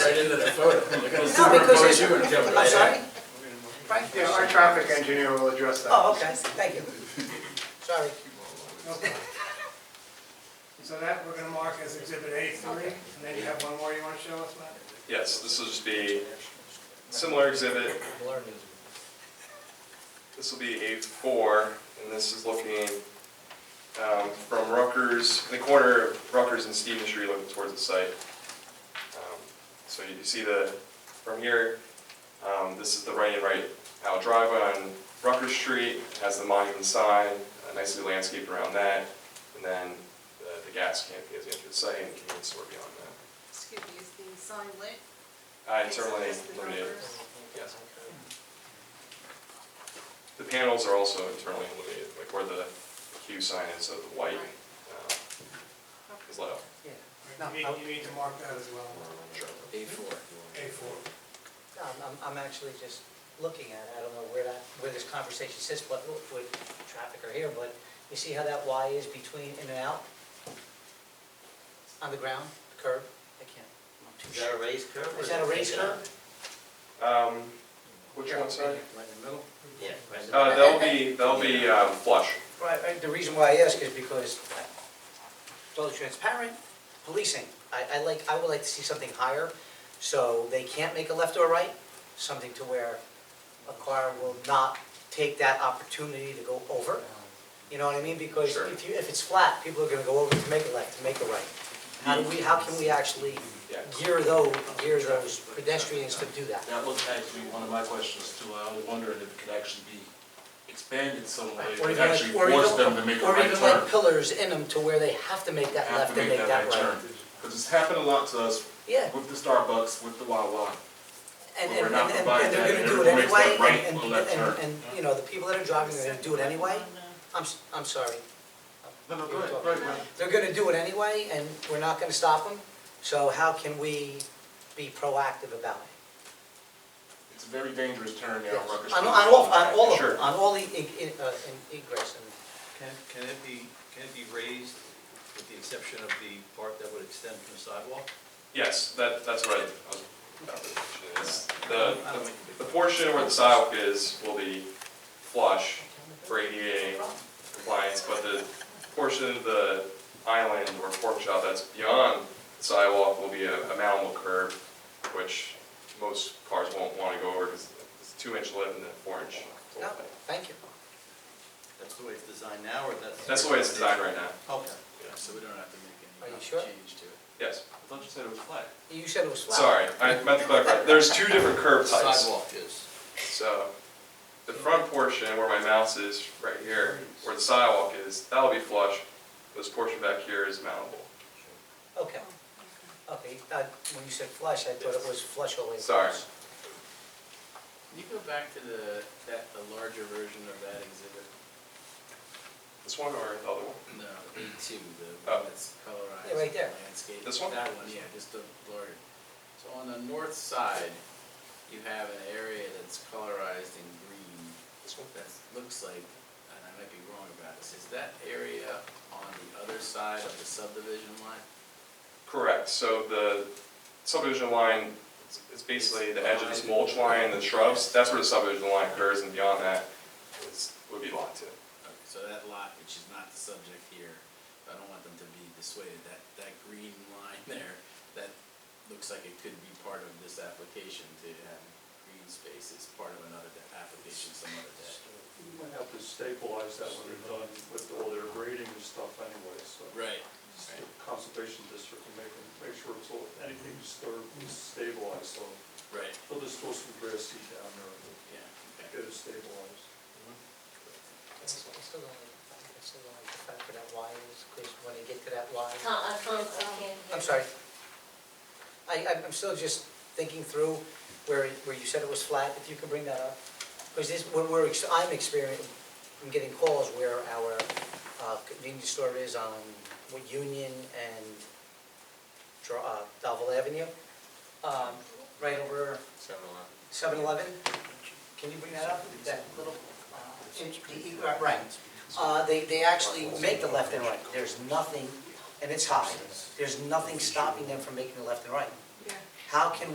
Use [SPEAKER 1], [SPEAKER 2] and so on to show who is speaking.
[SPEAKER 1] It's
[SPEAKER 2] No,
[SPEAKER 1] gonna
[SPEAKER 2] because
[SPEAKER 1] put
[SPEAKER 2] it's-
[SPEAKER 1] you in jeopardy.
[SPEAKER 2] I'm sorry? Frank?
[SPEAKER 3] Yeah, our traffic engineer will address that.
[SPEAKER 2] Oh, okay, thank you. Sorry.
[SPEAKER 4] Okay. So that, we're gonna mark as exhibit A three, and then you have one more you wanna show us, Matt?
[SPEAKER 5] Yes, this will just be similar exhibit. This will be A4, and this is looking um, from Rutgers, the corner of Rutgers and Stevens Street looking towards the site. Um, So you see the, from here, um, this is the right-in, right-out driveway on Rutgers Street, It has the monument sign, uh, nicely landscaped around that, and then the- the gas canopy as you enter the site and the convenience store beyond that.
[SPEAKER 6] Excuse me, is the sign lit?
[SPEAKER 5] Uh, It's certainly
[SPEAKER 6] Is it the
[SPEAKER 5] limited.
[SPEAKER 6] numbers?
[SPEAKER 5] Yes. The panels are also internally illuminated, like where the Q sign is of the white uh, is lit up.
[SPEAKER 2] Yeah. No,
[SPEAKER 4] You
[SPEAKER 2] I'm-
[SPEAKER 4] need, you need to mark that as well,
[SPEAKER 5] Sure.
[SPEAKER 1] A four.
[SPEAKER 4] A four.
[SPEAKER 2] no, I'm- I'm, I'm actually just looking at it, I don't know where that, where this conversation sits, what, what traffic are here, but you see how that Y is between in and out? On the ground, curb, I can't, I'm too
[SPEAKER 1] Is that
[SPEAKER 2] sure.
[SPEAKER 1] a raised curb? or
[SPEAKER 2] Is that a raised curb?
[SPEAKER 5] Um, Which one, sorry?
[SPEAKER 1] Right in the middle? Yeah. right in the
[SPEAKER 5] Uh, That'll be, that'll be um, flush.
[SPEAKER 2] Right, right, the reason why I ask is because, uh, totally transparent, policing, I, I like, I would like to see something higher, so they can't make a left or a right, something to where a car will not take that opportunity to go over. You know what I mean? Because
[SPEAKER 5] Sure.
[SPEAKER 2] if you, if it's flat, people are gonna go over to make a left, to make a right. How do we, how can we actually
[SPEAKER 5] Yeah.
[SPEAKER 2] gear those, gear those pedestrians to do that?
[SPEAKER 7] That was actually one of my questions too. I was wondering if it could actually be expanded some way,
[SPEAKER 2] Or
[SPEAKER 7] to
[SPEAKER 2] even like-
[SPEAKER 7] actually
[SPEAKER 2] or
[SPEAKER 7] force
[SPEAKER 2] even-
[SPEAKER 7] them to make a
[SPEAKER 2] Or
[SPEAKER 7] right
[SPEAKER 2] even like
[SPEAKER 7] turn.
[SPEAKER 2] pillars in them to where they have to make that
[SPEAKER 7] Have
[SPEAKER 2] left
[SPEAKER 7] to
[SPEAKER 2] and
[SPEAKER 7] make that right turn. Because it's happened a lot to us
[SPEAKER 2] Yeah.
[SPEAKER 7] with the Starbucks, with the Wawa.
[SPEAKER 2] And,
[SPEAKER 7] But
[SPEAKER 2] and,
[SPEAKER 7] we're not
[SPEAKER 2] and- and
[SPEAKER 7] providing
[SPEAKER 2] they're gonna
[SPEAKER 7] that.
[SPEAKER 2] do it
[SPEAKER 7] Everyone makes
[SPEAKER 2] anyway,
[SPEAKER 7] that right
[SPEAKER 2] and,
[SPEAKER 7] or
[SPEAKER 2] and,
[SPEAKER 7] left
[SPEAKER 2] and,
[SPEAKER 7] turn.
[SPEAKER 2] and, you know, the people that are driving are gonna do it anyway. I'm, s- I'm sorry.
[SPEAKER 7] No, no,
[SPEAKER 2] Oh, go
[SPEAKER 7] go
[SPEAKER 2] ahead,
[SPEAKER 7] ahead,
[SPEAKER 2] go They're gonna do it anyway, and we're not gonna stop them, so how can we be proactive about it?
[SPEAKER 7] It's a very dangerous turn there on Rucker
[SPEAKER 2] Yes.
[SPEAKER 7] Street.
[SPEAKER 2] On, on all, on all of
[SPEAKER 5] Sure.
[SPEAKER 2] them, on all the, e- e- uh, in- egress and,
[SPEAKER 1] Can, can it be, can it be raised with the exception of the part that would extend from the sidewalk?
[SPEAKER 5] Yes, that, that's what I I was about to mention. is The,
[SPEAKER 1] I don't think it'd
[SPEAKER 5] the
[SPEAKER 1] be-
[SPEAKER 5] portion where the sidewalk is will be flush for ADA compliance, but the portion of the island or pork shop that's beyond the sidewalk will be a a mountable curb, which most cars won't want to go over because it's two inch lip and then four inch.
[SPEAKER 2] no, thank you.
[SPEAKER 1] That's the way it's designed now, or that's?
[SPEAKER 5] That's the way it's designed right now.
[SPEAKER 1] Okay, yeah, so we don't have to make
[SPEAKER 2] Are
[SPEAKER 1] any
[SPEAKER 2] you sure?
[SPEAKER 1] change to it.
[SPEAKER 5] Yes,
[SPEAKER 7] I thought you said it was flat.
[SPEAKER 2] You said it was flat.
[SPEAKER 5] sorry, I meant to clarify. There's two different curb types.
[SPEAKER 1] Sidewalk is.
[SPEAKER 5] So the front portion where my mouse is right here, where the sidewalk is, that'll be flush. This portion back here is mountable.
[SPEAKER 2] Okay, okay, uh, when you said flush, I thought it was flush all the way across.
[SPEAKER 5] Sorry.
[SPEAKER 8] Can you go back to the, that, the larger version of that exhibit?
[SPEAKER 5] This one or the other one?
[SPEAKER 8] No, A two, the
[SPEAKER 5] Oh.
[SPEAKER 8] one that's
[SPEAKER 2] Yeah,
[SPEAKER 8] colorized
[SPEAKER 2] right there.
[SPEAKER 8] landscape.
[SPEAKER 5] This one?
[SPEAKER 8] That one, yeah, just the larger. So on the north side, you have an area that's colorized in green.
[SPEAKER 5] This one?
[SPEAKER 8] That looks like, and I might be wrong about this, is that area on the other side of the subdivision line?
[SPEAKER 5] Correct, so the subdivision line is- is basically the edge of this mulch line, the shrubs, that's where the subdivision line occurs, and beyond that is, would be lot two.
[SPEAKER 8] Okay, So that lot, which is not the subject here, I don't want them to be dissuaded, that, that green line there, that looks like it could be part of this application to have green space as part of another de- application some other day.
[SPEAKER 9] You might have to stabilize that when they're done with all their grading and stuff anyway, so.
[SPEAKER 8] Right.
[SPEAKER 9] It's the Conservation District can make, make sure it's all, anything disturbed is stabilized, so
[SPEAKER 8] Right,
[SPEAKER 9] they'll just throw some grass seed down there and
[SPEAKER 8] yeah, okay.
[SPEAKER 9] get it stabilized.
[SPEAKER 2] It's still only, it's still only the fact that that Y is, because when you get to that Y.
[SPEAKER 6] I can't, I can't hear.
[SPEAKER 2] I'm sorry. I, I'm- I'm still just thinking through where, where you said it was flat, if you could bring that up. Because this, when we're, ex- I'm experiencing, I'm getting calls where our uh, convenience store is on what, Union and Dr- uh, Dalville Avenue, um, right over
[SPEAKER 5] Seven
[SPEAKER 2] 7-Eleven.
[SPEAKER 5] eleven.
[SPEAKER 2] Can you bring that up, that little, uh, in- the- uh, right? Uh, They, they actually make the left and right. There's nothing, and it's high, there's nothing stopping them from making the left and right.
[SPEAKER 6] Yeah.
[SPEAKER 2] How can